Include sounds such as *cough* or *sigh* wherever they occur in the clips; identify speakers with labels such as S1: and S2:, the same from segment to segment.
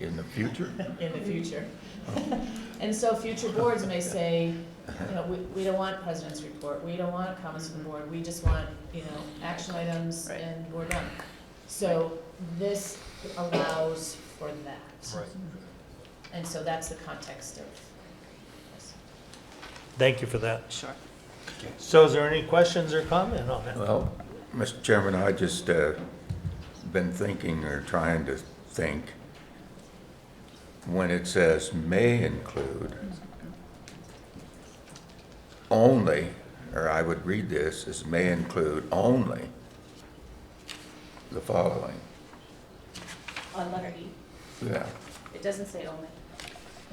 S1: in the future?
S2: in the future.
S1: Oh.
S2: *laughs* And so future boards may say, you know, we, we don't want president's report, we don't want comments from the board, we just want, you know, action items
S3: Right.
S2: and we're done. So this allows for that.
S4: Right.
S2: And so that's the context of this.
S4: Thank you for that.
S3: Sure.
S4: So is there any questions or comment on that?
S1: Well, Mr. Chairman, I just uh, been thinking or trying to think, when it says may include, only, or I would read this as may include only the following.
S5: on letter E.
S1: Yeah.
S5: It doesn't say only.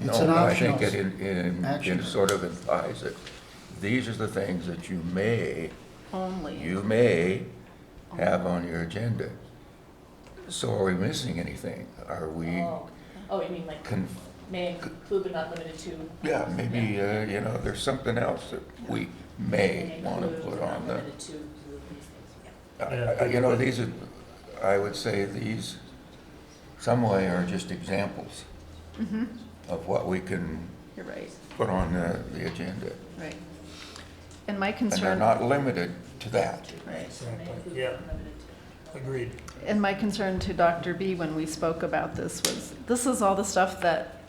S1: No,
S6: It's an
S1: but I think it, in-
S6: optional
S1: in-
S6: action.
S1: it sort of implies that these are the things that you may
S3: Only.
S1: you may have on your agenda. So are we missing anything? Are we,
S2: Oh, oh, you mean like
S1: con-
S2: may include but not limited to,
S1: yeah, maybe, uh, you know, there's something else that we may
S2: may
S1: want to
S2: include
S1: put
S2: but not
S1: on the,
S2: limited to these things, yeah.
S1: I- I- you know, these are, I would say these, some way are just examples of what we can
S3: Mm-hmm. You're right,
S1: put on the, the agenda.
S3: right. And my
S1: And they're
S3: concern.
S1: not limited to that.
S3: Right.
S4: Yeah, agreed.
S3: And my concern to Dr. B when we spoke about this was, this is all the stuff that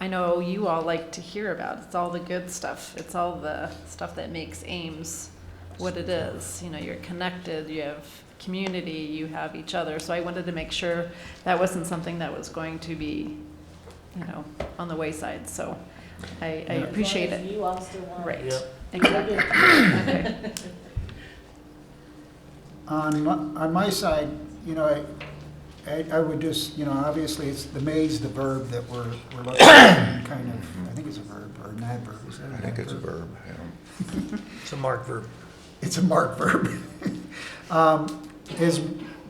S3: I know you all like to hear about. It's all the good stuff. It's all the stuff that makes Ames what it is. You know, you're connected, you have community, you have each other. So I wanted to make sure that wasn't something that was going to be, you know, on the wayside. So I, I
S2: As long
S3: appreciate
S2: as
S3: it.
S2: you all still want it.
S3: Right.
S4: Yep.
S3: Exactly. Okay.
S6: On, my- on my side, you know, I, I, I would just, you know, obviously, it's, the may's the verb that we're, we're looking at, *coughs* kind of, I think it's a verb, or an adverb, is that an
S1: I think it's a
S6: adverb?
S1: verb, you know.
S4: It's a marked verb.
S6: It's a marked verb. *laughs* Um, Is,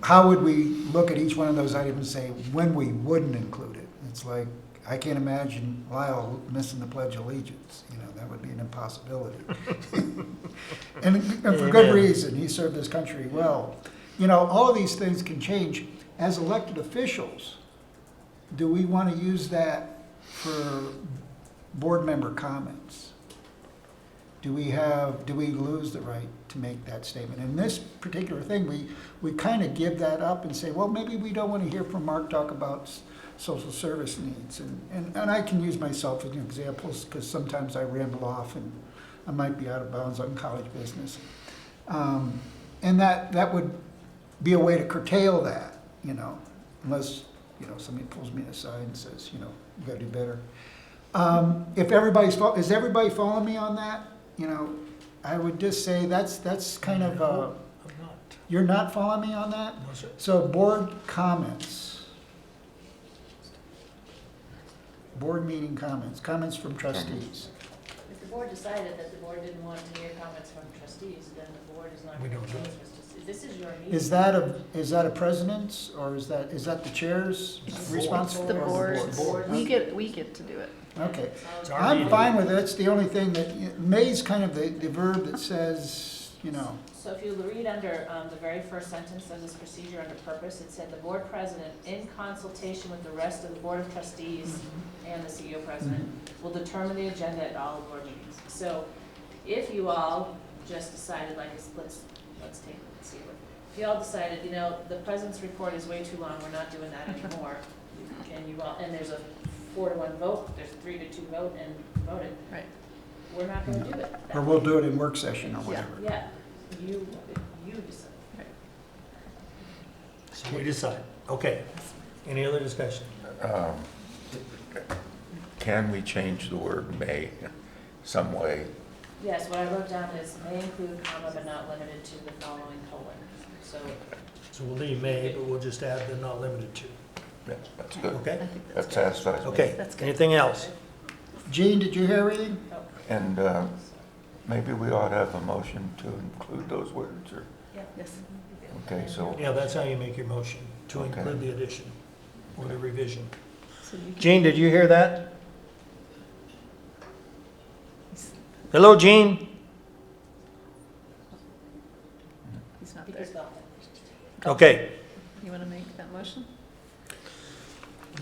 S6: how would we look at each one of those items and say, when we wouldn't include it? It's like, I can't imagine Lyle missing the Pledge of Allegiance, you know, that would be an impossibility. *laughs* And and for good
S4: Amen.
S6: reason, he served his country well. You know, all of these things can change. As elected officials, do we want to use that for board member comments? Do we have, do we lose the right to make that statement? In this particular thing, we, we kind of give that up and say, well, maybe we don't want to hear from Mark talk about s- social service needs. And, and, and I can use myself as examples because sometimes I ramble off and I might be out of bounds on college business. Um, and that, that would be a way to curtail that, you know, unless, you know, somebody pulls me aside and says, you know, you gotta do better. Um, if everybody's, fol- is everybody following me on that? You know, I would just say that's, that's kind of, uh,
S4: I'm not.
S6: you're not following me on that?
S4: No, sir.
S6: So board comments. Board meeting comments, comments from trustees.
S2: If the board decided that the board didn't want to hear comments from trustees, then the board is not
S4: We
S2: going to
S4: don't
S2: change
S4: do
S2: this. Just- This is your meeting.
S6: Is that a, is that a president's or is that, is that the chair's responsibility?
S3: The
S6: or
S3: boards,
S4: board.
S3: we get, we get to do it.
S6: Okay.
S4: It's our
S6: I'm
S4: meeting.
S6: fine with it. It's the only thing that, may's kind of the, the verb that says, you know,
S2: So if you read under um, the very first sentence of this procedure under purpose, it said the board president, in consultation with the rest of the board of trustees and the CEO president, will determine the agenda at all board meetings. So if you all just decided, like, let's- let's, let's take, let's see, what- if you all decided, you know, the president's report is way too long, we're not doing that anymore, and you all, and there's a four to one vote, there's three to two vote and voted,
S3: Right.
S2: we're not gonna do it.
S6: or we'll do it in work session or whatever.
S2: Yeah, you, you decide.
S4: So we decide. Okay. Any other discussion?
S1: Um, Can we change the word may some way?
S2: Yes, what I wrote down is may include comma but not limited to the following colon. So,
S4: So we'll leave may, but we'll just add the not limited to.
S1: That's that's good.
S3: I
S4: Okay?
S3: think that's
S1: That
S3: good.
S1: satisfies me.
S4: Okay.
S3: That's good.
S4: Anything else?
S6: Gene, did you hear anything?
S2: oh,
S1: And uh, maybe we ought to have a motion to include those words, or,
S2: yeah.
S3: Yes.
S1: okay, so,
S4: Yeah, that's how you make your motion, to
S1: Okay.
S4: include the addition or the revision.
S3: So you can-
S4: Gene, did you hear that? Hello, Gene?
S3: He's not
S2: He
S3: there.
S2: just got
S4: Okay.
S3: You want to make that motion?